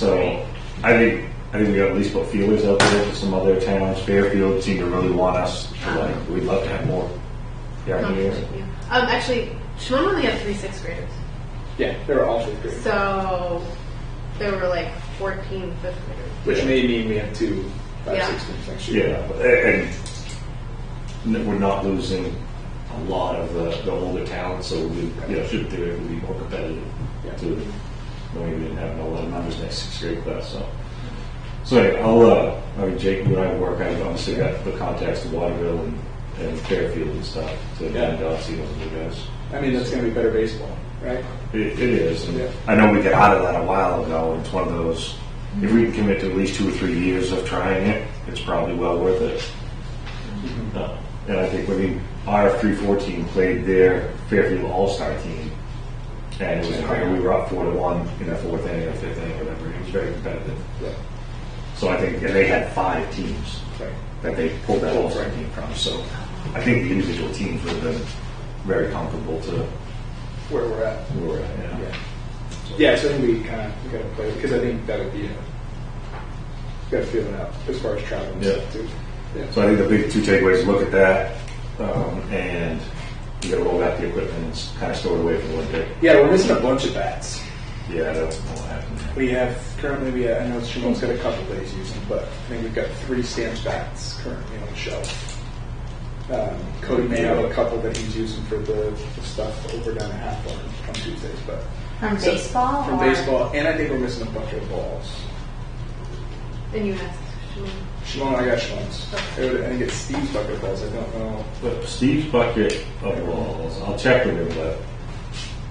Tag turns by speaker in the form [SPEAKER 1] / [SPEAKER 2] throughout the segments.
[SPEAKER 1] So I think, I think we got at least put feelers out there to some other towns. Fairfield seemed to really want us to like, we'd love to have more yard
[SPEAKER 2] Um,
[SPEAKER 1] meeters.
[SPEAKER 2] actually, Shimon only had three sixth graders,
[SPEAKER 3] Yeah, they were all fifth grade,
[SPEAKER 2] so there were like 14 fifth graders.
[SPEAKER 3] which may mean we have two five,
[SPEAKER 2] Yeah.
[SPEAKER 3] six students next year.
[SPEAKER 1] Yeah, but- and and we're not losing a lot of the, the older talent, so we, you know, should theoretically be more competitive.
[SPEAKER 3] Yeah.
[SPEAKER 1] To, knowing we didn't have a lot of members next sixth grade class, so. So anyway, I'll, uh, I mean, Jake, you and I work, I've obviously got the contacts to Waterville and, and Fairfield and stuff, to,
[SPEAKER 3] Yeah.
[SPEAKER 1] and, uh, see those new guys.
[SPEAKER 3] I mean, that's going to be better baseball, right?
[SPEAKER 1] It, it is. and
[SPEAKER 3] Yeah.
[SPEAKER 1] I know we got out of that a while ago. and It's one of those, if we can commit to at least two or three years of trying it, it's probably well worth it. Uh, And I think when the RF314 played their Fairfield All-Star team, and it was, we were up four to one in the fourth inning or fifth inning, whatever. It was very competitive.
[SPEAKER 3] Yeah.
[SPEAKER 1] So I think, and they had five teams
[SPEAKER 3] Right.
[SPEAKER 1] that they pulled that All-Star team from. So I think the individual teams would have been very comfortable to
[SPEAKER 3] Where we're at.
[SPEAKER 1] where we're at. yeah.
[SPEAKER 3] Yeah. Yeah, so I think we kind of we got to play because I think that would be a got to feel it out as far as travel and
[SPEAKER 1] Yeah.
[SPEAKER 3] stuff too. Yeah.
[SPEAKER 1] So I think the big two takeaways, look at that, um, and you gotta roll out the equipment and kind of store it away for the winter.
[SPEAKER 3] yeah, we're missing a bunch of bats.
[SPEAKER 1] Yeah, that's what happened.
[SPEAKER 3] We have currently we have, I know Shimon's got a couple days using, but I think we've got three stamps bats currently on the shelf. Um, Cody may have a couple that he's using for the, the stuff over down at half on, on Tuesdays, but
[SPEAKER 4] From
[SPEAKER 3] So-
[SPEAKER 4] baseball?
[SPEAKER 3] from
[SPEAKER 4] or-
[SPEAKER 3] baseball, and I think we're missing a bunch of balls.
[SPEAKER 2] And you asked Shimon.
[SPEAKER 3] Shimon, I got Shimon's. I would- I think it's Steve's bucket of balls. I don't know.
[SPEAKER 1] But Steve's bucket of balls, I'll check with him, but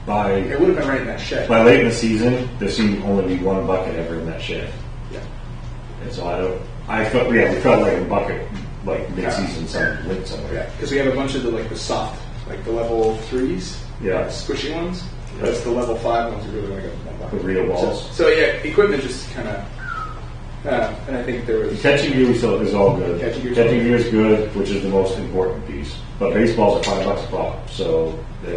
[SPEAKER 3] It
[SPEAKER 1] by,
[SPEAKER 3] would have been right in that shed.
[SPEAKER 1] by late in the season, there seemed to only be one bucket ever in that shed.
[SPEAKER 3] Yeah.
[SPEAKER 1] And so I don't, I felt, yeah, we felt like a bucket, like mid-season, some, late
[SPEAKER 3] Yeah,
[SPEAKER 1] somewhere.
[SPEAKER 3] because we have a bunch of the like the soft, like the level threes,
[SPEAKER 1] Yeah.
[SPEAKER 3] squishy ones. That's the level five ones. We really want to go. Like
[SPEAKER 1] The real balls.
[SPEAKER 3] So, so, yeah, equipment just kind of, uh, and I think there
[SPEAKER 1] The
[SPEAKER 3] was
[SPEAKER 1] Catching gear we sell is all good.
[SPEAKER 3] Catching gear's
[SPEAKER 1] Catching
[SPEAKER 3] all
[SPEAKER 1] gear is good, which is the most important piece. But baseball's are five bucks a pop, so they,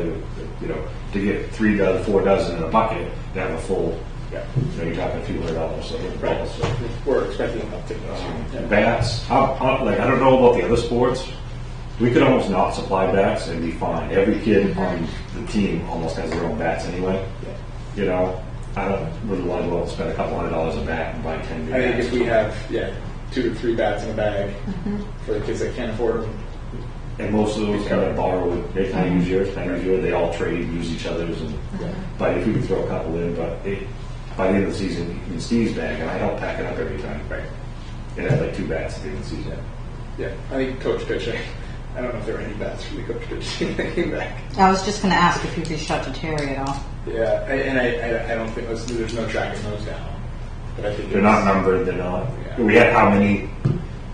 [SPEAKER 1] you know, to get three dozen, four dozen in a bucket, to have a full,
[SPEAKER 3] yeah,
[SPEAKER 1] you know, you're talking a few hundred dollars. So it's
[SPEAKER 3] Right.
[SPEAKER 1] balls, so.
[SPEAKER 3] we're expecting an uptick.
[SPEAKER 1] Um,
[SPEAKER 3] this year. Yeah.
[SPEAKER 1] Bats, how, how, like I don't know about the other sports. We could almost not supply bats and be fine. Every kid on the team almost has their own bats anyway. You know, I don't really want to go out and spend a couple hundred dollars a bat and buy ten. new
[SPEAKER 3] I think
[SPEAKER 1] bats.
[SPEAKER 3] if we have yeah two to three bats in a bag for the kids that can't afford them,
[SPEAKER 1] And most of those kind of borrow, they kind of use yours, kind of use yours, they all trade, use each other's, and, but if we could throw a couple in, but it, by the end of the season, in Steve's bag, and I don't pack it up every time. Right. It had like two bats at the end of the season.
[SPEAKER 3] yeah, I think coach pitch. I, I don't know if there were any bats for the coach pitch team that came back.
[SPEAKER 4] I was just going to ask if you'd reached out to Terry at all.
[SPEAKER 3] Yeah, I- and I, I, I don't think listen, there's no tracking those down, but I think
[SPEAKER 1] They're
[SPEAKER 3] it's-
[SPEAKER 1] not numbered, they're not,
[SPEAKER 3] Yeah.
[SPEAKER 1] we had how many,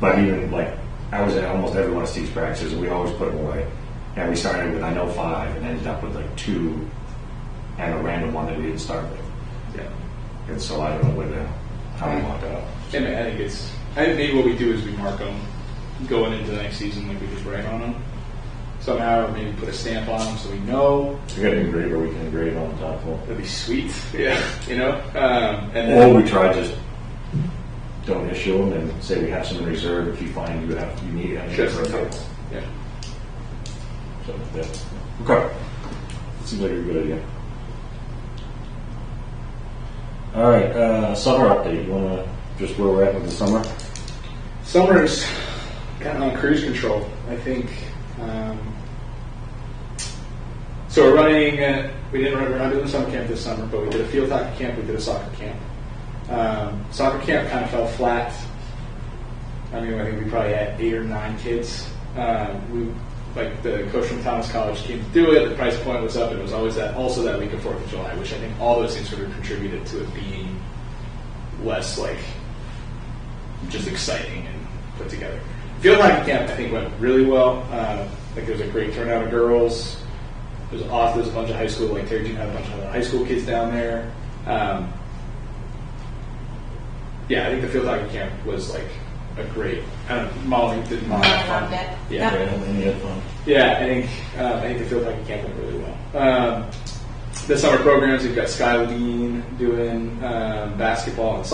[SPEAKER 1] but even like, I was at almost every one of Steve's practices, and we always put them away. And we started with, I know, five, and ended up with like two, and a random one that we didn't start with.
[SPEAKER 3] Yeah.
[SPEAKER 1] And so I don't know whether, how we walked out.
[SPEAKER 3] I, mean, I think it's. I think maybe what we do is we mark them going into the next season, like we just write on them somehow, or maybe put a stamp on them so we know.
[SPEAKER 1] We got an engraver we can engrave on the top one.
[SPEAKER 3] That'd be sweet. Yeah, you know. Um, and then,
[SPEAKER 1] Or we try just don't issue them and say we have some in reserve if you find you have, you need any.
[SPEAKER 3] just
[SPEAKER 1] for a
[SPEAKER 3] in
[SPEAKER 1] couple.
[SPEAKER 3] case. Yeah.
[SPEAKER 1] So, yeah. Okay. Seems like a good idea. All right, uh, summer update. You wanna, just where we're at with the summer?
[SPEAKER 3] Summer's gotten on cruise control. I think. Um, so we're running. Uh, we didn't. We're not doing summer camp this summer, but we did a field hockey camp. We did a soccer camp. Um, soccer camp kind of fell flat. I mean, I think we probably had eight or nine kids. Um, we like the coach from Thomas College came to do it. The price point was up. It was always that. Also that week of Fourth of July, which I think all those things sort of contributed to it being less like just exciting and put together. Field hockey camp, I think, went really well. Uh, I think there was a great turnout of girls. There's off. There's a bunch of high school, like Terry Jean had a bunch of high school kids down there. Um, yeah, I think the field hockey camp was like a great. I don't know, Molly did Molly have fun?
[SPEAKER 4] loved it.
[SPEAKER 3] Yeah.
[SPEAKER 1] and you had fun.
[SPEAKER 3] Yeah, I think um, I think the field hockey camp went really well. Um, the summer programs, we've got Skyline doing um, basketball and